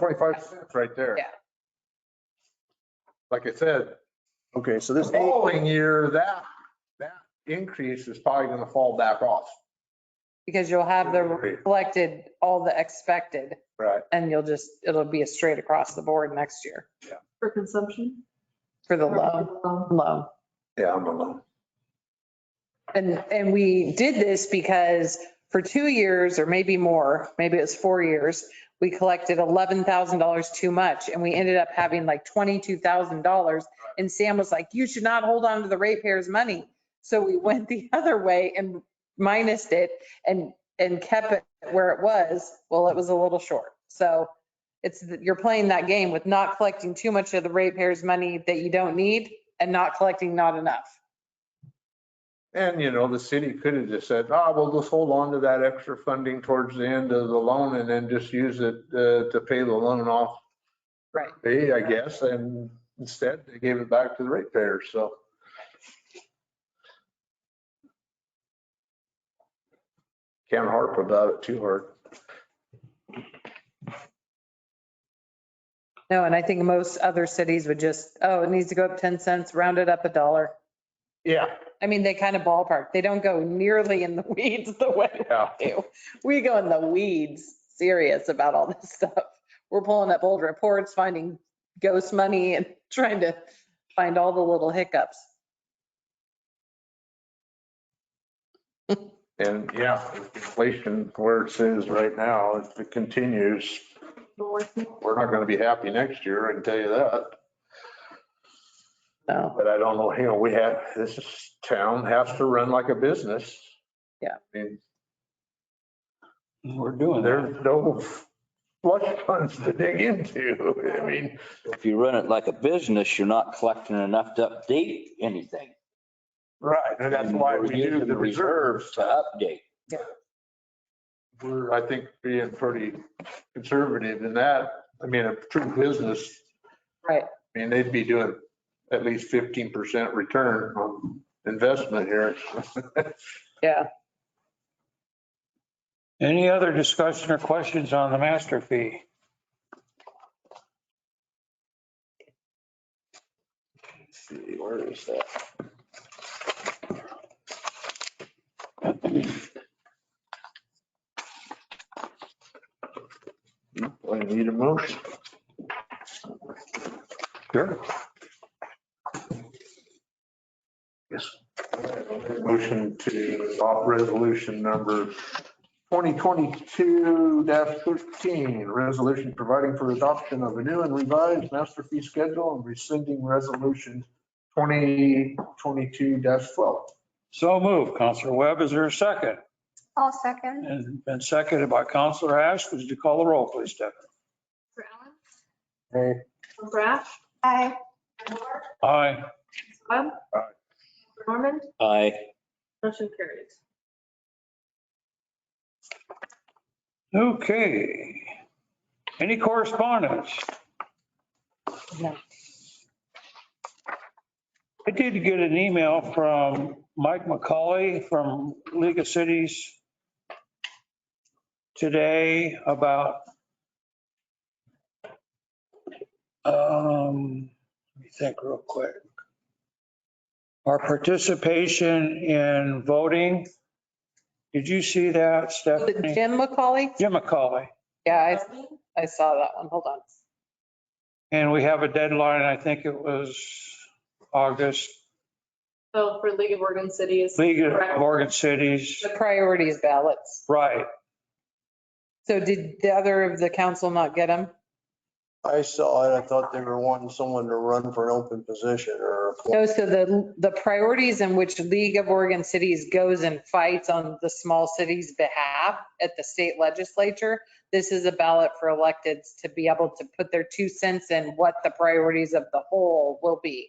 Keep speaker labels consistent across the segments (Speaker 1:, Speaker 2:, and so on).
Speaker 1: 25 cents right there.
Speaker 2: Yeah.
Speaker 1: Like I said,
Speaker 3: Okay, so
Speaker 1: the
Speaker 3: this, eight-
Speaker 1: following year, that, that increase is probably going to fall back off.
Speaker 2: because you'll have the
Speaker 1: Right.
Speaker 2: reflected, all the expected,
Speaker 1: Right.
Speaker 2: and you'll just, it'll be a straight across the board next year
Speaker 4: For consumption? um,
Speaker 2: for the low, low.
Speaker 1: Yeah, I'm alone.
Speaker 2: And, and we did this because for two years or maybe more, maybe it was four years, we collected $11,000 too much and we ended up having like $22,000. And Sam was like, you should not hold on to the ratepayers' money. So we went the other way and minused it and, and kept it where it was. Well, it was a little short. So it's, that you're playing that game with not collecting too much of the ratepayers' money that you don't need and not collecting not enough.
Speaker 1: And, you know, the city could have just said, ah, we'll just hold on to that extra funding towards the end of the loan and then just use it uh, to pay the loan off.
Speaker 2: Right.
Speaker 1: Hey, I guess, and instead they gave it back to the ratepayers, so. Can't harp about it too hard.
Speaker 2: No, and I think most other cities would just, oh, it needs to go up 10 cents, round it up a dollar.
Speaker 1: Yeah,
Speaker 2: I mean, they kind of ballpark. They don't go nearly in the weeds the way
Speaker 1: yeah.
Speaker 2: we do. We go in the weeds, serious about all this stuff. We're pulling up old reports, finding ghost money and trying to find all the little hiccups.
Speaker 1: And yeah, with inflation where it is right now, if it continues, we're not going to be happy next year, I can tell you that.
Speaker 2: So,
Speaker 1: But I don't know, you know, we have, this is- town has to run like a business.
Speaker 2: Yeah.
Speaker 1: I mean,
Speaker 5: We're doing that.
Speaker 1: there's no flush funds to dig into. I mean,
Speaker 5: If you run it like a business, you're not collecting enough to update anything.
Speaker 1: right, and that's why we
Speaker 5: We're
Speaker 1: do
Speaker 5: using
Speaker 1: the reserves.
Speaker 5: To update.
Speaker 1: We're, I think, being pretty conservative in that. I mean, a true business,
Speaker 2: right.
Speaker 1: I mean, they'd be doing at least 15% return on investment here.
Speaker 2: Yeah.
Speaker 6: Any other discussion or questions on the master fee?
Speaker 5: Let's See, where is that?
Speaker 1: I need a motion. Sure. Yes. Motion to adopt resolution number 2022-13, resolution providing for adoption of a new and revised master fee schedule and rescinding resolution 2022-12.
Speaker 6: So move, Counselor Webb. Is there a second?
Speaker 4: I'll second.
Speaker 6: And and seconded by Counselor Ash. Would you call the roll, please, Stephanie?
Speaker 4: Brash? Aye.
Speaker 6: Aye.
Speaker 4: Webb?
Speaker 1: Aye.
Speaker 4: Norman?
Speaker 5: I,
Speaker 4: Motion carries.
Speaker 6: Okay. Any correspondence?
Speaker 2: No.
Speaker 6: I did get an email from Mike McCauley from League of Cities today about um, let me think real quick. Our participation in voting. Did you see that,
Speaker 2: Was it
Speaker 6: Stephanie?
Speaker 2: Jim McCauley?
Speaker 6: Jim McCauley.
Speaker 2: Yeah, I, I saw that one. Hold on.
Speaker 6: And we have a deadline, I think it was August,
Speaker 4: So for League of Oregon Cities,
Speaker 6: League of Oregon Cities,
Speaker 2: The priorities ballots.
Speaker 6: right.
Speaker 2: So did the other of the council not get them?
Speaker 3: I saw it. I thought they were wanting someone to run for an open position or.
Speaker 2: No, so the, the priorities in which League of Oregon Cities goes and fights on the small cities' behalf at the state legislature, this is a ballot for electeds to be able to put their two cents in what the priorities of the whole will be.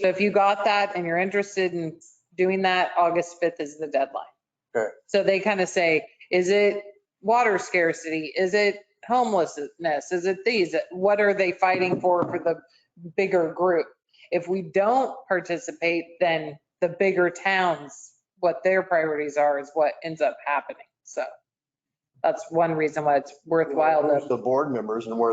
Speaker 2: So if you got that and you're interested in doing that, August 5th is the deadline.
Speaker 3: Okay.
Speaker 2: So they kind of say, is it water scarcity? Is it homelessness? Is it these? What are they fighting for for the bigger group? If we don't participate, then the bigger towns, what their priorities are is what ends up happening. So That's one reason why it's worthwhile to
Speaker 3: The board members and where